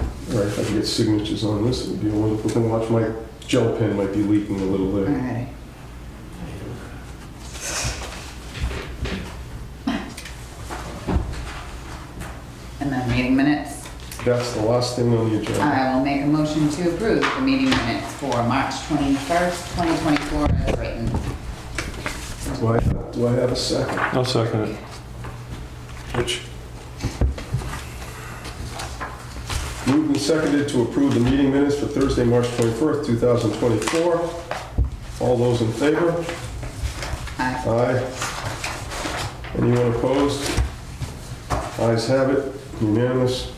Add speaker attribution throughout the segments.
Speaker 1: All right, if I can get signatures on this, it would be a wonderful thing. Watch, my gel pen might be leaking a little
Speaker 2: All
Speaker 1: bit.
Speaker 2: right. And then meeting minutes.
Speaker 1: That's the last thing on the agenda.
Speaker 2: I will make a motion to approve the meeting minutes for March 21st, 2024 as written.
Speaker 1: Do I, do I have a second?
Speaker 3: I'll second it.
Speaker 1: Which? Moved and seconded to approve the meeting minutes for Thursday, March 21st, 2024. All those in favor?
Speaker 2: Aye.
Speaker 1: Aye. Anyone opposed? Ayes have it, unanimous.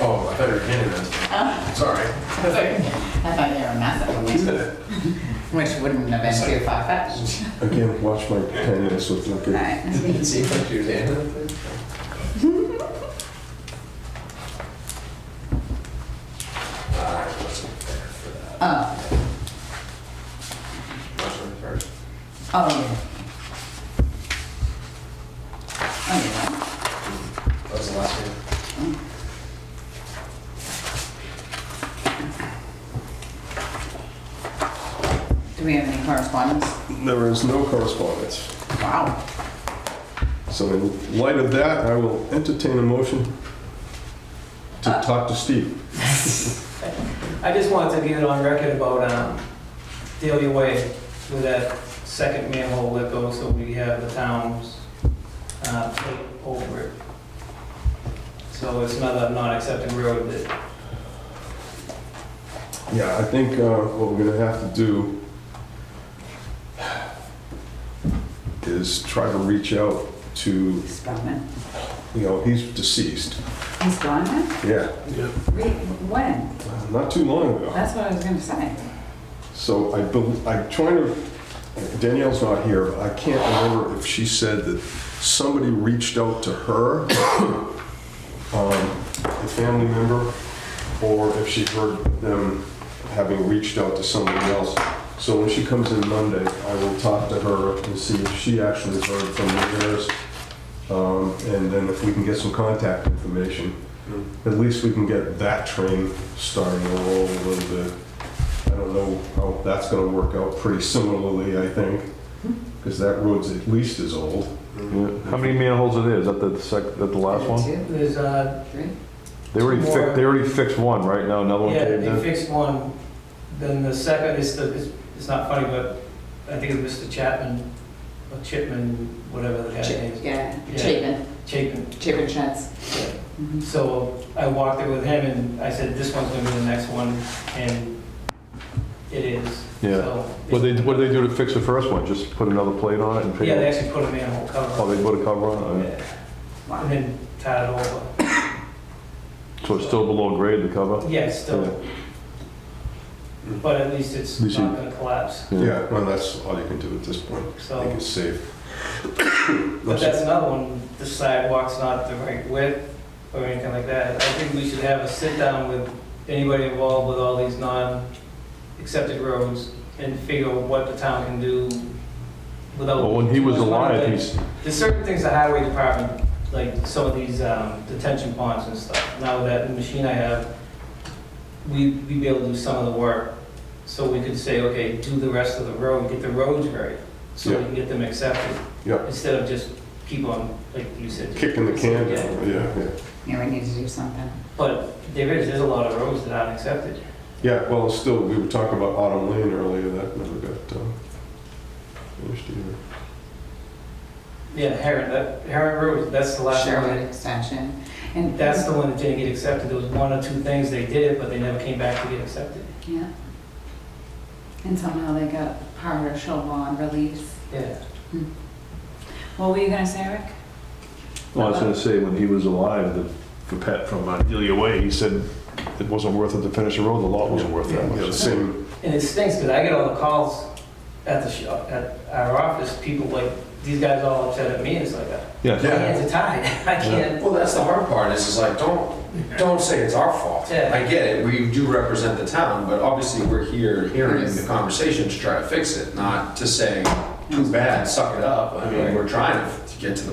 Speaker 4: Oh, I thought you were handing this. Sorry.
Speaker 2: I thought you were a mess up with me, which wouldn't have been too far-fetched.
Speaker 1: Again, watch my pen, this looks like
Speaker 2: All
Speaker 1: it.
Speaker 2: right.
Speaker 4: Didn't see what you were handing. I wasn't there for that.
Speaker 2: Oh,
Speaker 4: Much of the first.
Speaker 2: oh, yeah. Oh,
Speaker 4: That was the last one.
Speaker 2: yeah. Do we have any correspondence?
Speaker 1: There is no correspondence.
Speaker 2: Wow.
Speaker 1: So in light of that, I will entertain a motion to
Speaker 2: Uh,
Speaker 1: talk to Steve.
Speaker 5: I just wanted to get it on record about um, Daily Way with that second manhole that goes, so we have the town's uh, plate over it. So it's another non-accepted road that,
Speaker 1: Yeah, I think uh, what we're gonna have to do is try to reach out to,
Speaker 2: Spellman.
Speaker 1: you know, he's deceased.
Speaker 2: He's gone now?
Speaker 1: Yeah,
Speaker 2: Re- When?
Speaker 1: not too long ago.
Speaker 2: That's what I was gonna say.
Speaker 1: So I, bel- I'm trying to, Danielle's not here, but I can't remember if she said that somebody reached out to her, um, a family member, or if she heard them having reached out to somebody else. So when she comes in Monday, I will talk to her and see if she actually heard from the nurse. Um, and then if we can get some contact information, at least we can get that train starting to roll a little bit. I don't know how that's gonna work out pretty similarly, I think, because that road's at least as old.
Speaker 6: How many manholes are there? Is that the sec, that the last one?
Speaker 2: Two,
Speaker 5: there's, uh,
Speaker 2: three?
Speaker 6: They already
Speaker 5: More.
Speaker 6: fixed, they already fixed one, right? Now another one
Speaker 5: yeah,
Speaker 6: caved
Speaker 5: they
Speaker 6: in?
Speaker 5: fixed one. Then the second is the, it's- it's not funny, but I think it was Mr. Chapman, or Chipman, whatever the guy's name
Speaker 2: Chip-
Speaker 5: is,
Speaker 2: Yeah,
Speaker 5: Yeah.
Speaker 2: Chapin,
Speaker 5: Chapman.
Speaker 2: Chapin Sheds.
Speaker 5: yeah.
Speaker 2: Mhm.
Speaker 5: So I walked it with him and I said, this one's gonna be the next one, and it is.
Speaker 6: Yeah.
Speaker 5: So-
Speaker 6: What they, what did they do to fix the first one? Just put another plate on it and
Speaker 5: Yeah, they
Speaker 6: pay?
Speaker 5: actually put a manhole cover.
Speaker 6: Oh, they put a cover on it?
Speaker 5: Yeah.
Speaker 2: Wow.
Speaker 5: And then tied it over.
Speaker 6: So it's still below grade, the cover?
Speaker 5: Yeah, it's still, but at least it's
Speaker 6: At least
Speaker 5: not
Speaker 6: you-
Speaker 5: gonna collapse,
Speaker 1: Yeah, well, that's all you can do at this point. I think
Speaker 5: so.
Speaker 1: it's safe.
Speaker 5: But that's another one, the sidewalk's not the right width or anything like that. I think we should have a sit-down with anybody involved with all these non-accepted roads and figure out what the town can do without.
Speaker 6: Well, when he was
Speaker 5: One of the-
Speaker 6: alive, he's,
Speaker 5: There's certain things the highway department, like some of these um, detention ponds and stuff, now that the machine I have, we, we'd be able to do some of the work. So we could say, okay, do the rest of the road, get the roads right, so we
Speaker 1: Yeah.
Speaker 5: can get them accepted.
Speaker 1: Yeah.
Speaker 5: Instead of just keep on, like you said.
Speaker 1: Kicking the can
Speaker 5: Yeah.
Speaker 1: down, yeah, yeah.
Speaker 2: Yeah, we need to do something.
Speaker 5: But there is, there's a lot of roads that aren't accepted.
Speaker 1: Yeah, well, still, we were talking about Autumn Lane earlier, that never got um, finished either.
Speaker 5: Yeah, Heron, that, Heron Road, that's the last one.
Speaker 2: Sherwood
Speaker 5: that-
Speaker 2: extension. And
Speaker 5: That's the one that didn't get accepted, there was one or two things they did it, but they never came back to get accepted.
Speaker 2: Yeah. And somehow they got partial bond release.
Speaker 5: Yeah.
Speaker 2: What were you gonna say, Rick?
Speaker 6: well, I was gonna say, when he was alive, the, for Pat from uh, Delia Way, he said it wasn't worth it to finish the road, the lot wasn't worth that
Speaker 1: Yeah, the
Speaker 6: much.
Speaker 1: same,
Speaker 5: And it stinks because I get all the calls at the shop, at our office, people like, these guys all upset at me, and it's like,
Speaker 6: Yeah.
Speaker 5: my hands are tied, I can't.
Speaker 4: Well, that's the hard part, is it's like, don't, don't say it's our fault.
Speaker 5: Yeah.
Speaker 4: I get it, we do represent the town, but obviously we're here hearing
Speaker 2: Yes.
Speaker 4: the conversation to try to fix it, not to say, too bad, suck it up. I mean, we're trying to get to the